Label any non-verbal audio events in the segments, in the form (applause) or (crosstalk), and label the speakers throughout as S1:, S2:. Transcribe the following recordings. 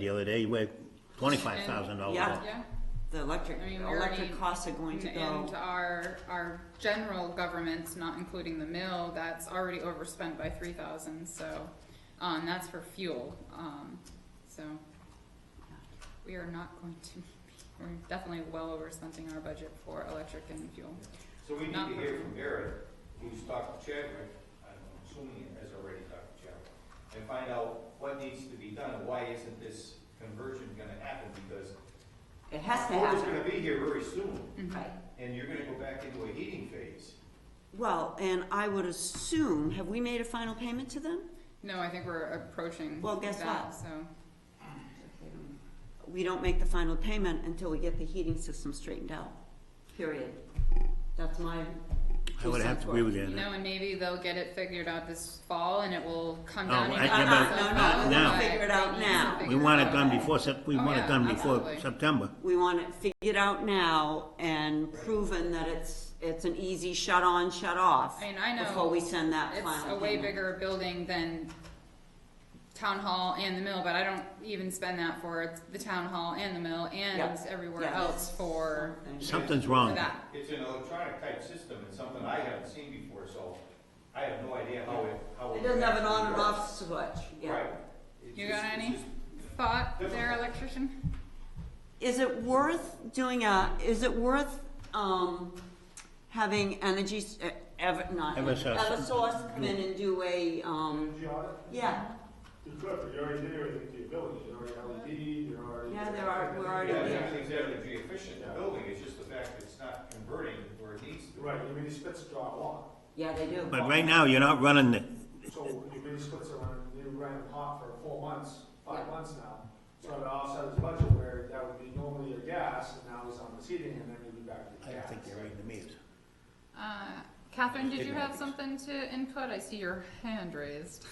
S1: the other day, we had twenty-five thousand dollars.
S2: Yeah.
S3: Yeah,
S2: The electric,
S3: I mean, we already-
S2: electric costs are going to
S3: and
S2: go,
S3: our, our general government's, not including the mill, that's already overspent by three thousand, so, uh, and that's for fuel, um, so. We are not going to, we're definitely well overspending our budget for electric and fuel.
S4: So we need
S3: Not
S4: to hear
S3: personal.
S4: from Barry, who's talked to Chadwick, I'm assuming he has already talked to Chadwick, and find out what needs to be done, and why isn't this conversion gonna happen, because
S2: it has to
S4: Florida's
S2: happen,
S4: gonna be here very soon,
S3: Mm-hmm.
S2: right?
S4: and you're gonna go back into a heating phase.
S2: Well, and I would assume, have we made a final payment to them?
S3: No, I think we're approaching
S2: Well, guess
S3: that,
S2: what?
S3: so,
S2: We don't make the final payment until we get the heating system straightened out, period. That's my.
S1: I would have to agree with you
S3: you
S1: on
S3: know,
S1: that.
S3: and maybe they'll get it figured out this fall and it will come
S1: Oh,
S3: down.
S1: I-
S3: in
S1: yeah,
S3: April,
S1: but-
S3: so
S1: not
S3: that's
S1: now.
S3: why
S2: Figure it out
S3: they need to
S2: now.
S1: We
S3: figure
S1: want
S3: it
S1: it done
S3: out.
S1: before Sep, we
S3: Oh,
S1: want it
S3: yeah,
S1: done before
S3: absolutely.
S1: September.
S2: We want it figured out now and proven that it's, it's an easy shut on, shut off.
S3: I mean, I know
S2: Before we send that final
S3: It's
S2: payment.
S3: a way bigger building than town hall and the mill, but I don't even spend that for the town hall and the mill and
S2: Yeah.
S3: everywhere
S2: Yeah.
S3: else for,
S1: Something's
S3: for
S1: wrong.
S3: that.
S4: It's an electronic type system, and something I haven't seen before, so I have no idea how it, how.
S2: It doesn't have an on and
S4: actually
S2: off switch,
S4: works.
S2: yeah.
S4: Right. It's
S3: You
S4: just-
S3: got
S4: it's
S3: any
S4: just-
S3: thought there, electrician?
S2: Is it worth doing a, is it worth, um, having energy, s- uh, ever, not,
S1: Eversource.
S2: Eversource come in and do a, um,
S5: Energy audit?
S2: yeah,
S5: You could, but you already did everything to your village, you already LED, you already.
S2: Yeah, there are- we're
S4: Yeah,
S2: already there.
S4: everything's energy efficient, the
S5: Yeah.
S4: building, it's just the fact that it's not converting where it needs to.
S5: Right, your mini splits draw a lot,
S2: yeah, they do.
S1: But right now, you're not running the,
S5: so your mini splits are running, they ran hot for four months, five
S2: Yeah.
S5: months now. So it offset his budget where that would be normally your gas, and now he's on the heating, and then he'd be back to
S1: I
S5: the
S1: don't
S5: gas.
S1: think they're in the meters.
S3: Uh, Catherine, did you have something to input? I see your hand raised.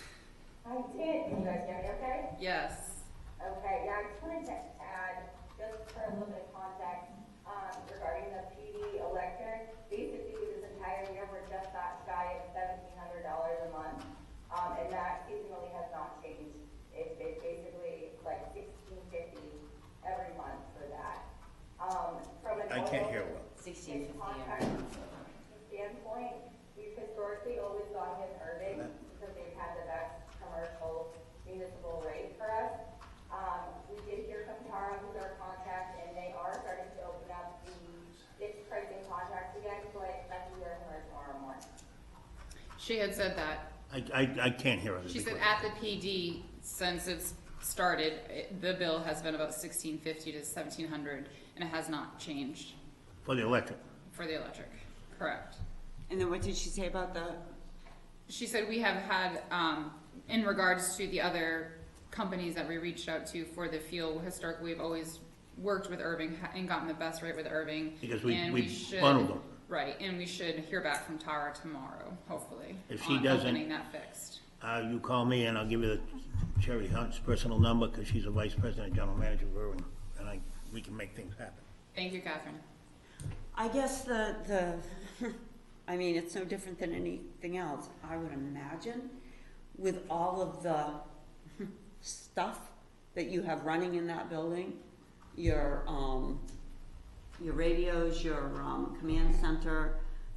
S6: I did. Can you guys hear me okay?
S3: Yes.
S6: Okay, yeah, I just wanted to add, just for a little bit of context, um, regarding the PD electric, basically this entire year, we're just that shy of seventeen hundred dollars a month. Um, and that seasonally has not changed. It's, it's basically like sixteen fifty every month for that. Um, from an.
S1: I can't hear
S6: overall-
S1: well.
S6: in contract standpoint, we've historically always gone with urban because they've had the best commercial municipal rate for us. Um, we did hear from Tara, who's our contact, and they are starting to open up the fixed pricing contracts again, so I expect to hear from her tomorrow morning.
S3: She had said that.
S1: I, I, I can't hear it.
S3: She said at the PD, since it's started, it- the bill has been about sixteen fifty to seventeen hundred and it has not changed
S1: For the electric.
S3: for the electric. Correct.
S2: And then what did she say about the,
S3: She said we have had, um, in regards to the other companies that we reached out to for the fuel, historically, we've always worked with Irving ha- and gotten the best rate with Irving.
S1: Because we-
S3: and
S1: we
S3: should-
S1: bundled them.
S3: Right, and we should hear back from Tara tomorrow, hopefully.
S1: If she
S3: on
S1: doesn't-
S3: Opening that fixed.
S1: Uh, you call me and I'll give you the Sherry Hunt's personal number, cause she's the vice president and general manager of Irving, and I, we can make things happen.
S3: Thank you, Catherine.
S2: I guess the, the, (laughs) I mean, it's no different than anything else, I would imagine, with all of the (laughs) stuff that you have running in that building, your, um, your radios, your, um, command center,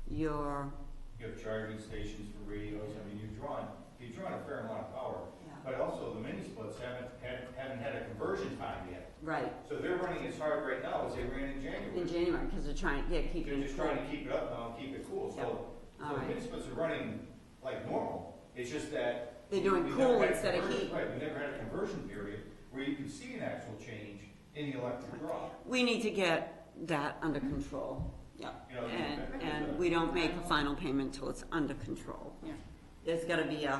S2: your,
S4: You have charging stations for radios, I mean, you've drawn, you've drawn a fair amount of power.
S2: Yeah.
S4: But also, the mini splits haven't, had- haven't had a conversion time yet.
S2: right,
S4: So they're running as hard right now as they ran in
S2: in
S4: January.
S2: January, cause they're trying, yeah, keep
S4: They're just trying to keep it up now, keep it cool,
S2: Yeah.
S4: so, so the
S2: Alright.
S4: mini splits are running like normal. It's just that.
S2: They're doing
S4: we've never
S2: cool
S4: had a
S2: instead of
S4: conversion-
S2: heat.
S4: Right, we never had a conversion period where you can see an actual change in the electric draw.
S2: We need to get that under control, yeah,
S4: Yeah, okay.
S2: and, and we don't make a final payment till it's under control.
S3: Yeah.
S2: There's gotta be a,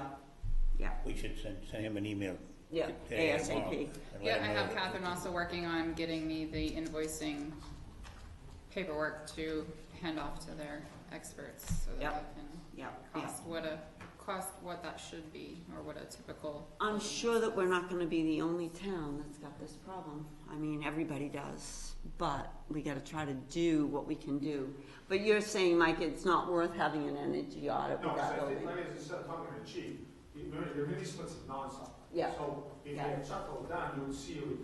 S2: yeah,
S1: We should send, send him an email.
S2: Yeah,
S1: today or tomorrow
S2: ASAP.
S1: and let
S3: Yeah,
S1: him
S3: I
S1: know
S3: have
S1: that-
S3: Catherine also working on getting me the invoicing paperwork to hand off to their experts so that
S2: Yep.
S3: they can
S2: yeah, yeah.
S3: cost what a cost what that should be or what a typical
S2: I'm sure that we're not gonna be the only town that's got this problem. I mean, everybody does, but we gotta try to do what we can do. But you're saying, Mike, it's not worth having an energy audit
S5: No,
S2: with that
S5: because I think,
S2: building?
S5: like I said, talking to the chief, your mini splits is nonstop.
S2: Yeah.
S5: So if you
S2: Yeah.
S5: had chuckled down, you would see a